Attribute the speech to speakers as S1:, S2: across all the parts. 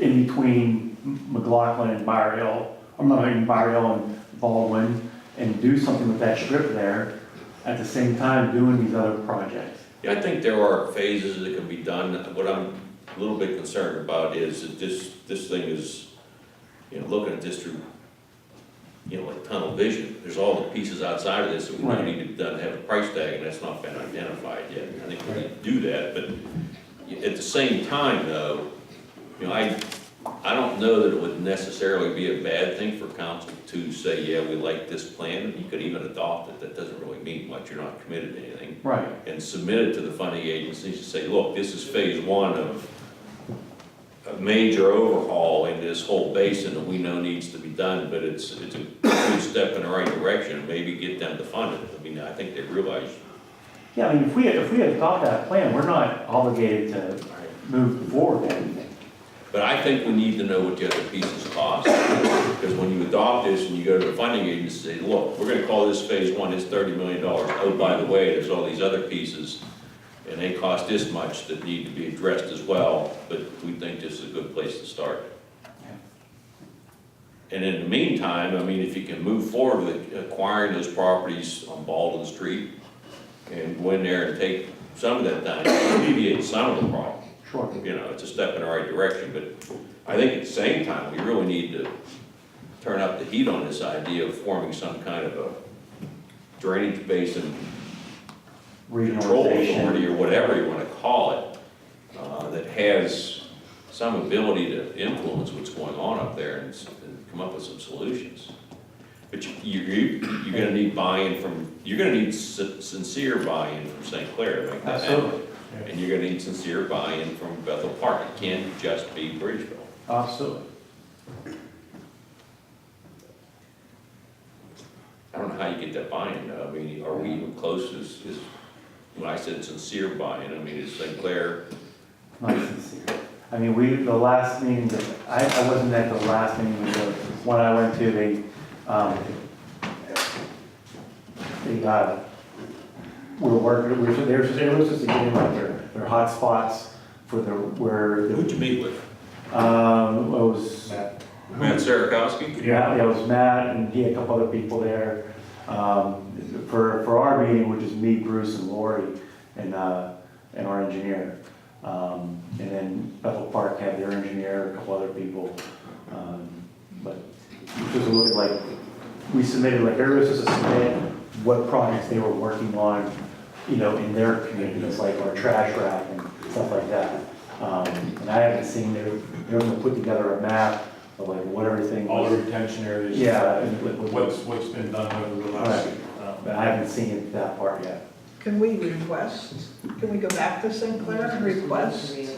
S1: in between McLaughlin and Bar Hill, or not even Bar Hill and Baldwin, and do something with that strip there at the same time doing these other projects.
S2: Yeah, I think there are phases that can be done. What I'm a little bit concerned about is that this, this thing is, you know, looking at this through, you know, like tunnel vision. There's all the pieces outside of this that we
S1: Right.
S2: need to done have a price tag, and that's not been identified yet. I think we need to do that, but at the same time, though, you know, I, I don't know that it would necessarily be a bad thing for council to say, yeah, we like this plan, and you could even adopt it. That doesn't really mean much. You're not committed to anything
S1: Right.
S2: and submit it to the funding agencies to say, look, this is phase one of a major overhaul in this whole basin that we know needs to be done, but it's, it's a good step in the right direction, maybe get them to fund it. I mean, I think they realize,
S1: Yeah, I mean, if we, if we had thought that plan, we're not obligated to move forward with anything.
S2: but I think we need to know what the other pieces cost. Because when you adopt this and you go to the funding agency, and say, look, we're gonna call this phase one, it's thirty million dollars. Oh, by the way, there's all these other pieces, and they cost this much that need to be addressed as well, but we think this is a good place to start. And in the meantime, I mean, if you can move forward with acquiring those properties on Baldwin Street and go in there and take some of that down, it alleviate some of the problem.
S1: Sure.
S2: You know, it's a step in the right direction, but I think at the same time, we really need to turn up the heat on this idea of forming some kind of a drainage basin control authority
S1: Regionalization.
S2: or whatever you wanna call it, uh, that has some ability to influence what's going on up there and, s- and come up with some solutions. But you, you, you- you're gonna need buy-in from, you're gonna need sin- sincere buy-in from St. Clair to make that happen.
S1: Absolutely,
S2: And you're gonna need sincere buy-in from Bethel Park, it can't just be Bridgeville.
S1: absolutely.
S2: I don't know how you get that buy-in, though. I mean, are we even close, is, is, when I said sincere buy-in, I mean, is St. Clair
S1: not sincere. I mean, we, the last meeting, that- I, I wasn't at the last meeting, but the one I went to, they, um, they, uh, were working, we were, they were, they were supposed to give me like their, their hotspots for the, where, the-
S2: Who'd you meet with?
S1: um, it was,
S2: Matt Sarakowski?
S1: yeah, yeah, it was Matt and he had a couple other people there. Um, for, for our meeting, which is me, Bruce and Lori and, uh, and our engineer. Um, and then Bethel Park had their engineer, a couple other people. Um, but just look at like, we submitted, like, everybody was supposed to submit what projects they were working on, you know, in their communities, like our trash rack and stuff like that. Um, and I haven't seen, they were, they were gonna put together a map of like what everything
S3: all the
S1: was.
S3: retention areas.
S1: Yeah, and what- what-
S3: What's, what's been done over the last, um,
S1: But I haven't seen it that part yet.
S4: Can we request, can we go back to St. Clair and request the-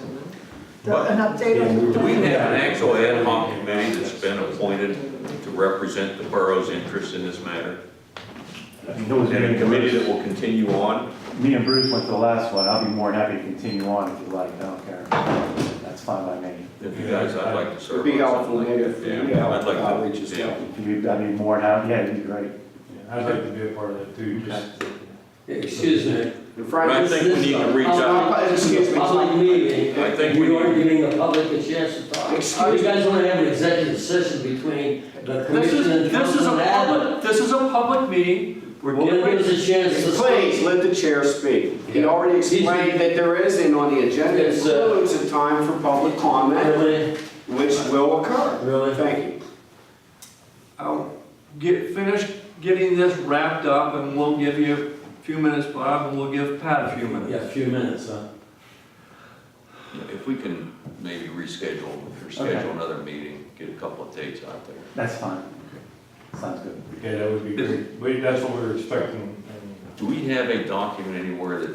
S4: an update on?
S2: Do
S4: the
S2: we
S4: plan?
S2: have an actual ad hoc committee that's been appointed to represent the borough's interest in this matter?
S1: I mean, it was
S2: And
S1: me
S2: a
S1: and
S2: committee
S1: Bruce.
S2: that will continue on?
S1: Me and Bruce went to the last one. I'll be more than happy to continue on if you like. I don't care. That's fine by me.
S2: If you guys, I'd like to serve.
S5: It'd be
S2: on something
S5: helpful,
S2: like
S5: maybe,
S2: that.
S5: if you
S2: Yeah, I'd
S5: help
S2: like to-
S5: outreach as
S2: yeah.
S5: well.
S1: If you, I'd be more than happy, yeah, it'd be great.
S3: yeah, I'd like to be a part of that too, just.
S6: Excuse me.
S5: And
S2: But I
S5: Frank,
S2: think we need to reach out.
S5: Uh, excuse me.
S6: Public meeting.
S2: I think we-
S6: You are giving the public a chance to talk. Oh,
S5: Excuse
S6: You guys want to have an executive session between the
S7: This
S6: commission
S7: is,
S6: and
S7: this is a
S6: council and admin.
S7: public, this is a public meeting, we're
S6: Well, then
S7: giving,
S6: there's a chance to.
S5: Please, let the chair speak. He already explained that there is, and on the agenda
S6: It's, uh,
S5: includes a time for public comment,
S6: Really,
S5: which will occur.
S6: really.
S5: Thank you.
S7: I'll get, finish getting this wrapped up, and we'll give you a few minutes, Bob, and we'll give Pat a few
S6: Yeah,
S7: minutes.
S6: a few minutes, huh?
S2: If we can maybe reschedule, or schedule another meeting, get a couple of dates out there.
S1: That's fine. Sounds good.
S3: Yeah, that would be great. We- that's what we were expecting. and-
S2: Do we have a document anywhere that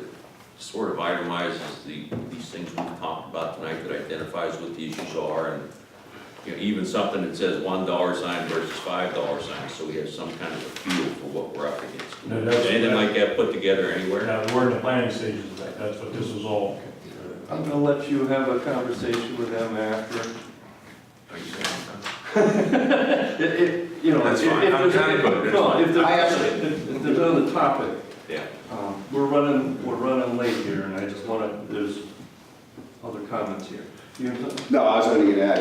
S2: sort of itemizes the, these things we talked about tonight that identifies what the issues are and, you know, even something that says one dollar sign versus five dollar sign, so we have some kind of a feel for what we're up against?
S3: No, that's-
S2: Anything like that put together anywhere?
S3: Now, we're in the planning stages of that, that's what this is all.
S7: I'm gonna let you have a conversation with them after.
S2: Are you saying?
S7: If, if, you know,
S2: That's
S7: if if
S2: fine. I'm
S7: there's,
S2: kind of good. That's
S7: no,
S2: fine.
S7: if there's,
S5: I actually-
S7: if if there's another topic,
S2: Yeah,
S7: um, we're running, we're running late here, and I just wanna, there's other comments here. You have something?
S5: No, I was gonna get at it.